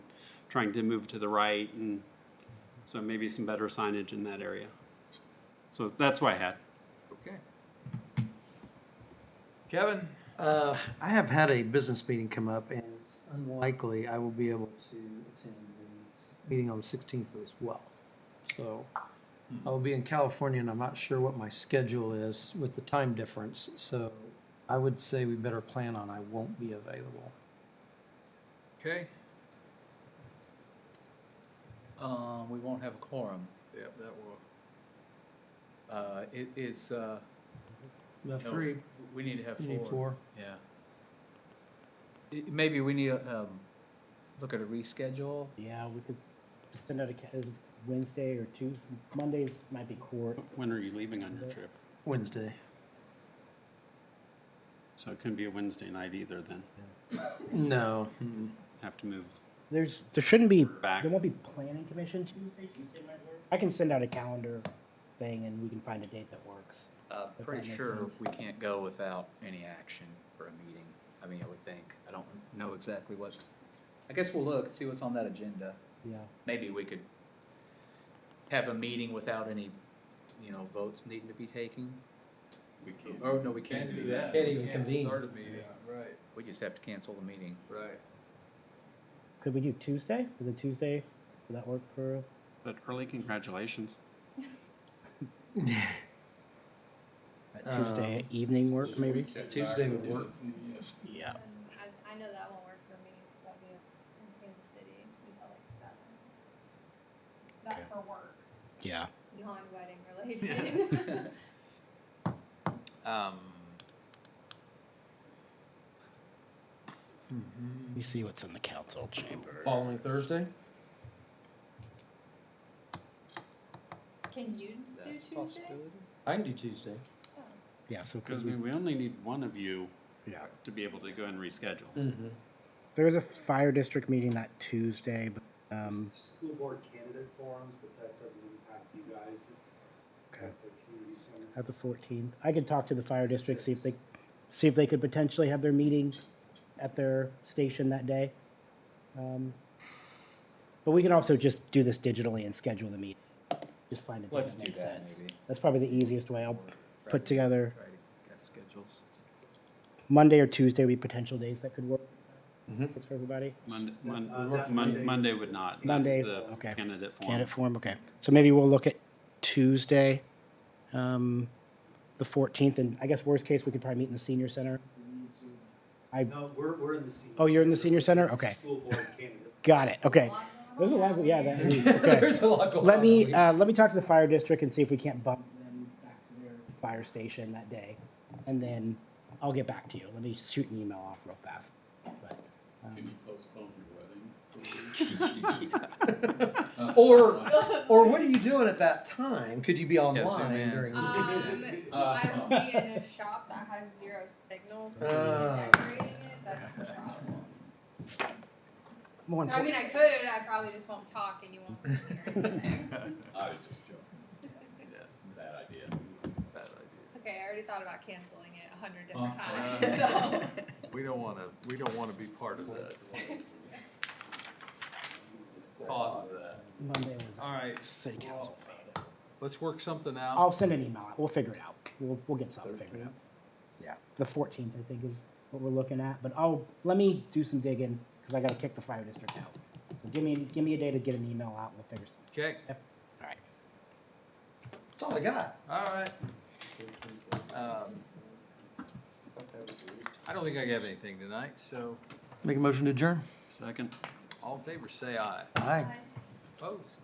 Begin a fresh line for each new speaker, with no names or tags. trying to move to the right, and so maybe some better signage in that area. So that's what I had.
Okay. Kevin?
Uh, I have had a business meeting come up, and it's unlikely I will be able to attend the s- meeting on the 16th as well. So I will be in California, and I'm not sure what my schedule is with the time difference. So I would say we better plan on I won't be available.
Okay.
Um, we won't have a quorum.
Yep, that will.
Uh, it is, uh.
The
no,
three,
We need to have
you need
four.
four.
Yeah. I- Maybe we need, to, um, look at a reschedule.
Yeah, we could send out a, ca- is Wednesday or Tuesday, Mondays might be court.
When are you leaving on your trip?
Wednesday.
So it couldn't be a Wednesday night either. Then
No.
have to move
There's, there shouldn't be,
back.
there won't be planning commission Tuesday, Tuesday might work. I can send out a calendar thing and we can find a date that works.
Uh,
that
pretty
makes
sure
sense.
we can't go without any action for a meeting. I mean, I would think. I don't know exactly what. I guess we'll look, see what's on that agenda.
Yeah,
Maybe we could have a meeting without any, you know, votes needing to be taken.
We
Oh, no, we can't do that.
Can't even convene.
Start a meeting, right,
We just have to cancel the meeting.
right.
could we do Tuesday? Would the Tuesday, would that work for,
But early congratulations.
Uh,
Um,
Tuesday evening work maybe?
Tuesday would work.
E
Yeah.
Um, I, I know that won't work for me, because I'll be in Kansas City until like seven. Not for work,
Yeah.
non-wedding related.
Um,
You see what's in the council chamber.
Following Thursday?
Can you do
That's a
Tuesday?
possibility.
I can do Tuesday.
Oh,
Yeah, so
Because I mean, we only need one of you
yeah.
to be able to go and reschedule.
Mm-hmm.
There is a fire district meeting that Tuesday, but, um,
School board candidate forums, but that doesn't impact you guys, it's
okay.
at the community center.
At the 14th. I could talk to the fire district, see if they, see if they could potentially have their meeting at their station that day. Um, But we can also just do this digitally and schedule the meeting. Just find a date
Let's
that
do
makes
that,
sense.
maybe.
That's probably the easiest way. I'll put together
Try to get schedules.
Monday or Tuesday, would be potential days that could work.
Mm-hmm.
Works for everybody.
Monday,
Uh,
Mon-
not
Mon-
Monday.
Monday would not. That's
Monday,
the
okay.
Candidate form.
Candidate form, okay. So maybe we'll look at Tuesday, um, the 14th, and I guess worst case, we could probably meet in the senior center. I,
No, we're, we're in the senior.
Oh, you're in the senior center?
It's
Okay.
School board candidate.
got it, okay.
lot
There's a
going
lot,
on
of-
that
yeah,
week.
that, okay.
a lot going
Let me, uh, let me talk to the fire district and see if we can't bump them back to their fire station that day. And then I'll get back to you. Let me shoot an email off real fast. But, um,
uh,
Or, or what are you doing at that time? Could you be
Yeah, zoom
online
in.
during? the
Um,
uh,
I will be in a shop that has zero signal, so
Ah.
decorating it, that's the problem.
more
So I mean,
important-
I could, I probably just won't talk and you won't see me or anything.
I was just joking. Bad idea. Bad idea.
It's okay, I already thought about canceling it a hundred different times, so.
We don't wanna, we don't wanna be part of that. Cause of that.
Monday was
All right,
city council.
let's work something out.
I'll send an email. out. We'll figure it out. We'll, we'll get something figured out. Yeah. The fourteenth, I think, is what we're looking at, but I'll, let me do some digging, because I gotta kick the fire district out. So Give me, give me a day to get an email out, and we'll figure something.
Okay,
All right.
That's all I got.
all right. Um, I don't think I have anything tonight, so
Make a motion to adjourn.
Second.
all in favor, say aye.
Aye.
Opposed?